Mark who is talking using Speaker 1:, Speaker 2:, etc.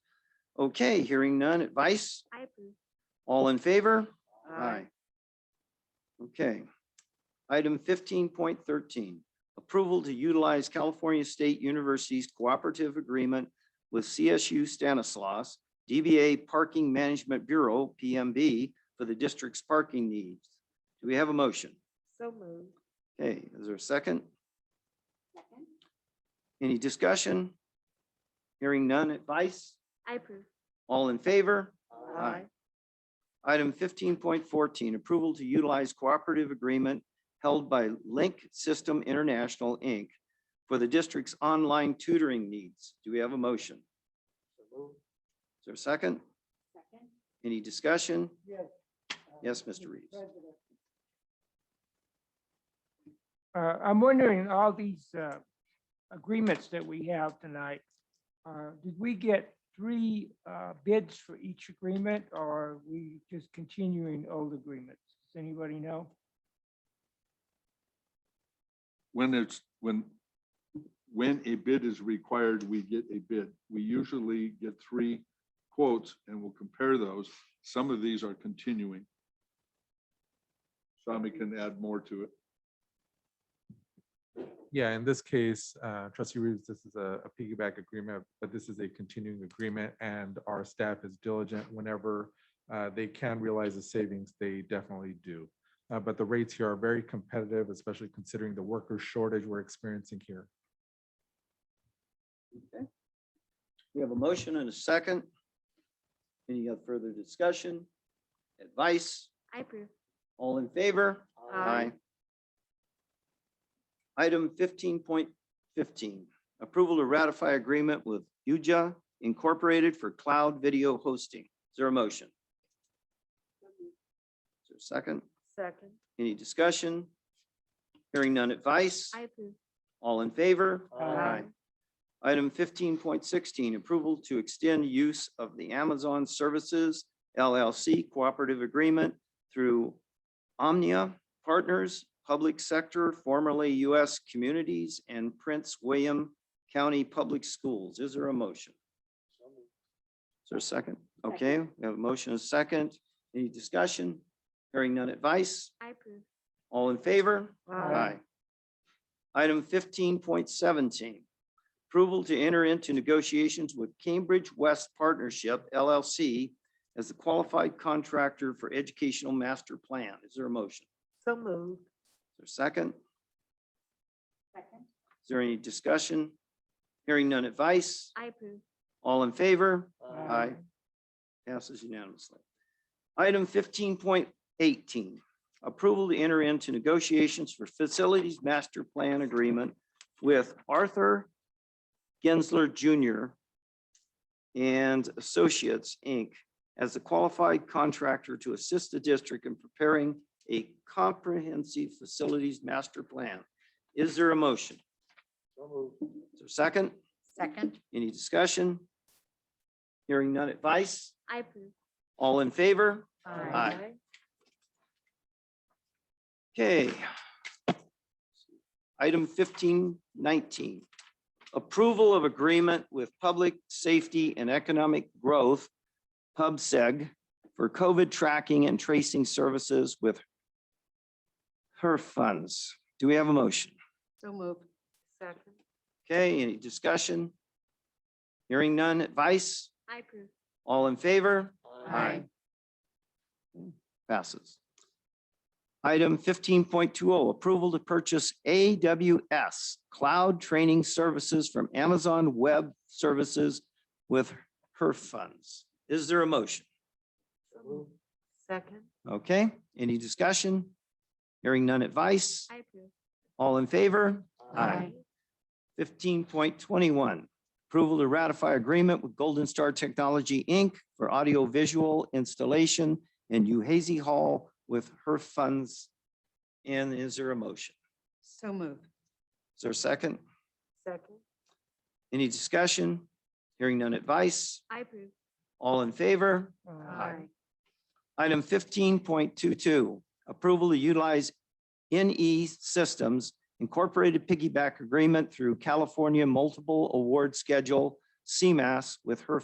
Speaker 1: Okay, hearing none. Advice?
Speaker 2: I approve.
Speaker 1: All in favor? Aye. Okay. Item fifteen point thirteen, approval to utilize California State University's cooperative agreement with CSU Stanislaus, DBA Parking Management Bureau, PMB, for the district's parking needs. Do we have a motion?
Speaker 2: So moved.
Speaker 1: Okay, is there a second?
Speaker 2: Second.
Speaker 1: Any discussion? Hearing none. Advice?
Speaker 2: I approve.
Speaker 1: All in favor? Aye. Item fifteen point fourteen, approval to utilize cooperative agreement held by Link System International, Inc. for the district's online tutoring needs. Do we have a motion? Is there a second?
Speaker 2: Second.
Speaker 1: Any discussion?
Speaker 3: Yes.
Speaker 1: Yes, Mr. Reeves.
Speaker 3: Uh, I'm wondering, all these, uh, agreements that we have tonight, uh, did we get three, uh, bids for each agreement or are we just continuing old agreements? Does anybody know?
Speaker 4: when it's, when, when a bid is required, we get a bid. We usually get three quotes and we'll compare those. Some of these are continuing. Sami can add more to it.
Speaker 5: Yeah, in this case, uh, trustee Reeves, this is a a piggyback agreement, but this is a continuing agreement and our staff is diligent whenever uh, they can realize the savings, they definitely do. Uh, But the rates here are very competitive, especially considering the worker shortage we're experiencing here.
Speaker 1: We have a motion and a second. Any other further discussion? Advice?
Speaker 2: I approve.
Speaker 1: All in favor?
Speaker 2: Aye.
Speaker 1: Item fifteen point fifteen, approval to ratify agreement with UJA Incorporated for cloud video hosting. Is there a motion? Is there a second?
Speaker 2: Second.
Speaker 1: Any discussion? Hearing none advice?
Speaker 2: I approve.
Speaker 1: All in favor?
Speaker 3: Aye.
Speaker 1: Item fifteen point sixteen, approval to extend use of the Amazon Services LLC Cooperative Agreement through Omnia Partners, Public Sector, formerly U.S. Communities, and Prince William County Public Schools. Is there a motion? Is there a second? Okay, we have a motion, and a second. Any discussion? Hearing none advice?
Speaker 2: I approve.
Speaker 1: All in favor?
Speaker 3: Aye.
Speaker 1: Item fifteen point seventeen, approval to enter into negotiations with Cambridge West Partnership LLC as the qualified contractor for educational master plan. Is there a motion?
Speaker 2: So moved.
Speaker 1: Is there a second?
Speaker 2: Second.
Speaker 1: Is there any discussion? Hearing none advice?
Speaker 2: I approve.
Speaker 1: All in favor?
Speaker 3: Aye.
Speaker 1: Passes unanimously. Item fifteen point eighteen, approval to enter into negotiations for facilities master plan agreement with Arthur Gensler Jr. and Associates, Inc. as the qualified contractor to assist the district in preparing a comprehensive facilities master plan. Is there a motion? Is there a second?
Speaker 2: Second.
Speaker 1: Any discussion? Hearing none advice?
Speaker 2: I approve.
Speaker 1: All in favor? Aye. Okay. Item fifteen nineteen, approval of agreement with Public Safety and Economic Growth, PubSeg, E for COVID tracking and tracing services with her funds. Do we have a motion?
Speaker 2: So moved. Second.
Speaker 1: Okay, any discussion? Hearing none, advice?
Speaker 2: I approve.
Speaker 1: All in favor?
Speaker 2: Aye.
Speaker 1: Passes. Item fifteen point two oh, approval to purchase AWS Cloud Training Services from Amazon Web Services with her funds. Is there a motion?
Speaker 2: Second.
Speaker 1: Okay, any discussion? Hearing none advice?
Speaker 2: I approve.
Speaker 1: All in favor? Fifteen point twenty-one, approval to ratify agreement with Golden Star Technology, Inc. for audiovisual installation in Uhazy Hall with her funds. And is there a motion?
Speaker 2: So moved.
Speaker 1: Is there a second?
Speaker 2: Second.
Speaker 1: Any discussion? Hearing none advice?
Speaker 2: I approve.
Speaker 1: All in favor?
Speaker 2: Aye.
Speaker 1: Item fifteen point two-two, approval to utilize NE Systems Incorporated piggyback agreement through California Multiple Award Schedule, CMAS, with her